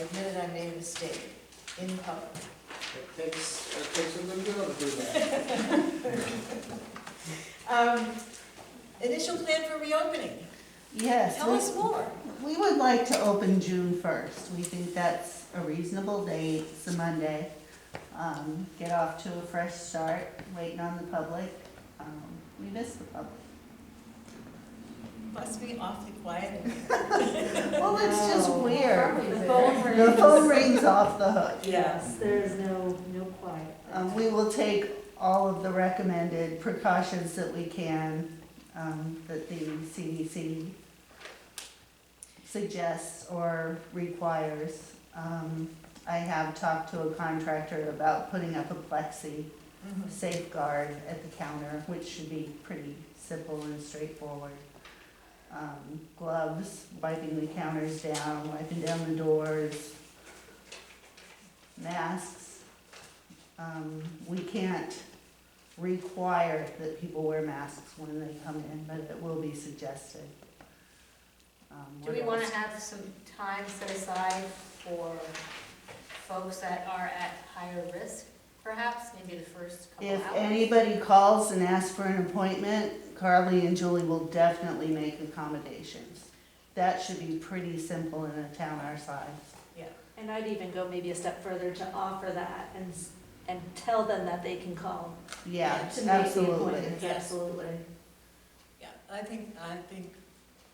admitted I made a mistake in public. It takes, it takes a good girl to do that. Um, Initial plan for reopening, Yes, tell us more. we, we would like to open June first. We think that's a reasonable date, it's a Monday. Um, get off to a fresh start, waiting on the public. Um, we miss the public. Must be awfully quiet. Well, it's just No, weird. probably The there. phone The phone rings off the hook. Yes. There is no, no quiet. Um, we will take all of the recommended precautions that we can, um, that the CDC suggests or requires. Um, I have talked to a contractor about putting up a plexi Mhm. safeguard at the counter, which should be pretty simple and straightforward. Um, gloves, wiping the counters down, wiping down the doors, masks. Um, we can't require that people wear masks when they come in, but it will be suggested. Um, Do we what want else? to have some time set aside for folks that are at higher risk, perhaps, maybe the first couple If hours? anybody calls and asks for an appointment, Carly and Julie will definitely make accommodations. That should be pretty simple in a town our size. And I'd even go maybe a step further to offer that and, s- and tell them that they can call. Yeah, To make the absolutely. appointments, absolutely. Yeah, I think, I think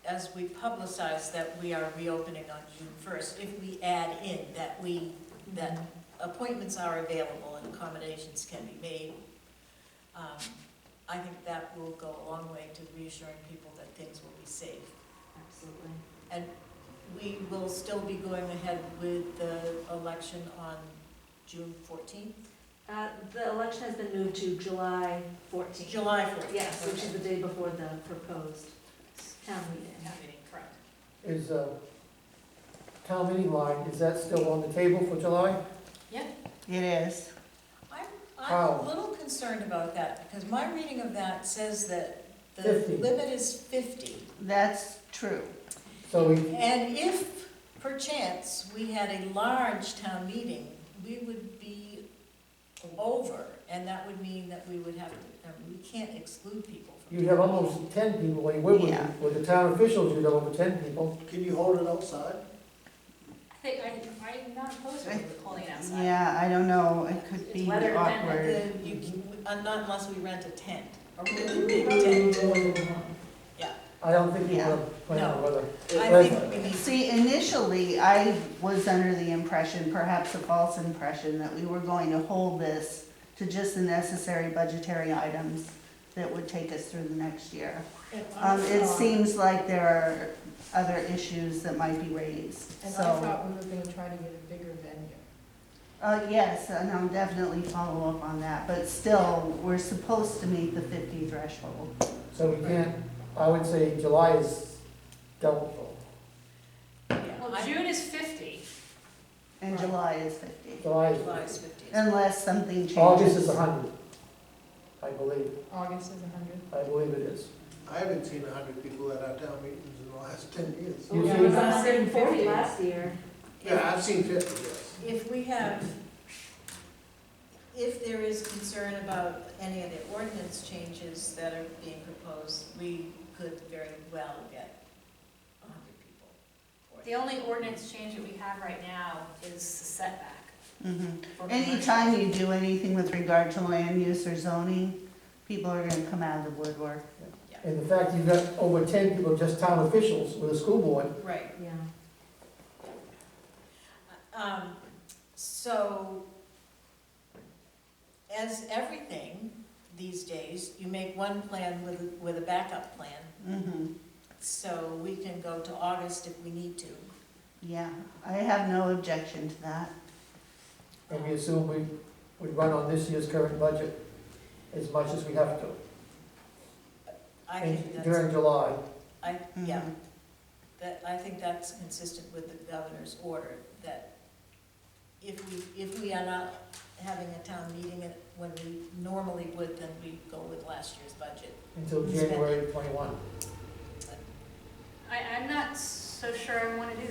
as we publicize that we are reopening on June first, if we add in that we, that appointments are available and accommodations can be made, um, I think that will go a long way to reassuring people that things will be safe. Absolutely. We will still be going ahead with the election on June fourteenth, Uh, the election has been moved to July fourteenth. July fourteenth. Yes, which is the day before the proposed town meeting. correct. Is, uh, town meeting line, is that still on the table for July? It is. I'm How? a little concerned about that, because my reading of that says that the 50. limit is fifty. That's true. So we, And if perchance we had a large town meeting, we would be over, and that would mean that we would have, to- I mean, we can't exclude people from. you'd have almost ten people, when you would Yeah. with, with the town officials, you'd have over ten people. Can you hold it outside? I think, I- I'm not opposed to holding it outside. Yeah, I don't know, it could be Whether or not awkward. The- you can- uh, Not unless we rent a tent, a really big tent. I don't think you Yeah. have plan on whether. I think we need See, initially, I was under the impression, perhaps a false impression, that we were going to hold this to just the necessary budgetary items that would take us through the next year. Um, uh, it seems like there are other issues that might be raised, so. we were gonna try to get a bigger venue. Uh, yes, and I'll definitely follow up on that, but still, we're supposed to meet the fifty threshold. So we can't, I would say July is doubtful. Well, June is 50. And Right. July is fifty, July July is is, fifty. unless something changes. August is a hundred, I believe, August is a hundred. I believe it is. I haven't seen a hundred people at our town meetings in the last ten years. You Yeah, see- it was hundred and forty last year. Yeah, I've seen fifty, yes. If we have, if there is concern about any of the ordinance changes that are being proposed, we could very well get a hundred people. for it. The only ordinance change that we have right now is the setback. Mhm. for commercial. Anytime you do anything with regard to land use or zoning, people are gonna come out of the woodwork. And the fact you've got over ten people, just town officials with a school board, Right, Yeah. um, so, as everything these days, you make one plan with, with a backup plan, Mhm. so we can go to August if we need to. Yeah, I have no objection to that. and we assume we would run on this year's current budget as much as we have to. I And think that's. During Mm-hmm. July, I, yeah, Mhm. that, I think that's consistent with the governor's order, that if we, if we are not having a town meeting at- when we normally would, then we go with last year's budget. until January twenty-one. I, I'm not so sure I want to do